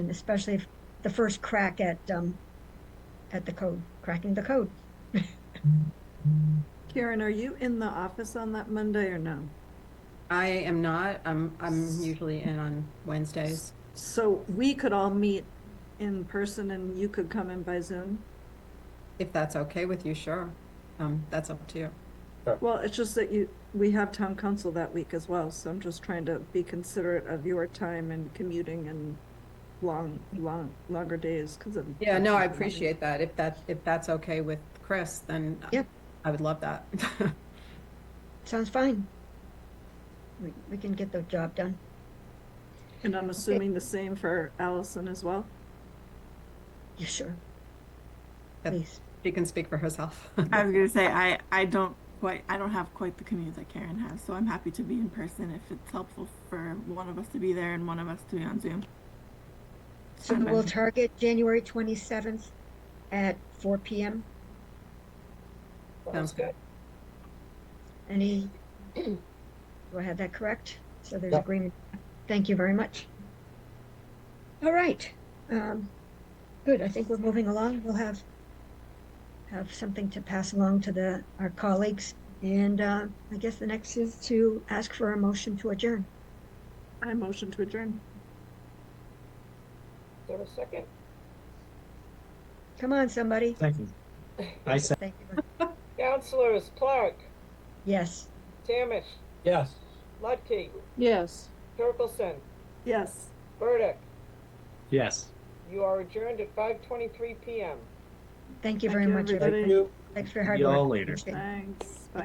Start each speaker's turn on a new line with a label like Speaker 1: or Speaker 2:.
Speaker 1: and especially if the first crack at um, at the code, cracking the code.
Speaker 2: Karen, are you in the office on that Monday or no?
Speaker 3: I am not. I'm I'm usually in on Wednesdays.
Speaker 2: So we could all meet in person and you could come in by Zoom?
Speaker 3: If that's okay with you, sure. Um, that's up to you.
Speaker 2: Well, it's just that you, we have town council that week as well, so I'm just trying to be considerate of your time and commuting and long, long, longer days because of.
Speaker 3: Yeah, no, I appreciate that. If that if that's okay with Chris, then
Speaker 1: Yep.
Speaker 3: I would love that.
Speaker 1: Sounds fine. We, we can get the job done.
Speaker 2: And I'm assuming the same for Allison as well?
Speaker 1: Yeah, sure.
Speaker 3: Yep.
Speaker 1: Please.
Speaker 3: she can speak for herself.
Speaker 4: I was gonna say I I don't quite I don't have quite the commute that Karen has, so I'm happy to be in person if it's helpful for one of us to be there and one of us to be on Zoom.
Speaker 1: So
Speaker 4: Okay.
Speaker 1: we'll target January 27th at 4 p.m.
Speaker 3: Sounds good.
Speaker 1: Any, do I have that correct? So there's
Speaker 5: Yeah.
Speaker 1: agreement. Thank you very much. All right. Um, good. I think we're moving along. We'll have have something to pass along to the our colleagues, and uh, I guess the next is to ask for a motion to adjourn.
Speaker 2: I motion to adjourn.
Speaker 6: There was a second.
Speaker 1: Come on, somebody.
Speaker 5: Second. I said,
Speaker 1: Thank you.
Speaker 6: Counselors Clark,
Speaker 1: Yes.
Speaker 6: Tamish,
Speaker 5: yes.
Speaker 6: Lutke,
Speaker 2: Yes.
Speaker 6: Turkelson,
Speaker 2: Yes.
Speaker 6: Burdick.
Speaker 5: Yes.
Speaker 6: You are adjourned at 5:23 p.m.
Speaker 1: Thank you
Speaker 2: Thank
Speaker 1: very
Speaker 2: you,
Speaker 1: much. everyone.
Speaker 2: everybody.
Speaker 5: Thank you.
Speaker 1: Thanks for your hard
Speaker 5: Y'all
Speaker 1: work.
Speaker 5: later.
Speaker 1: Appreciate it.
Speaker 2: Thanks. Bye.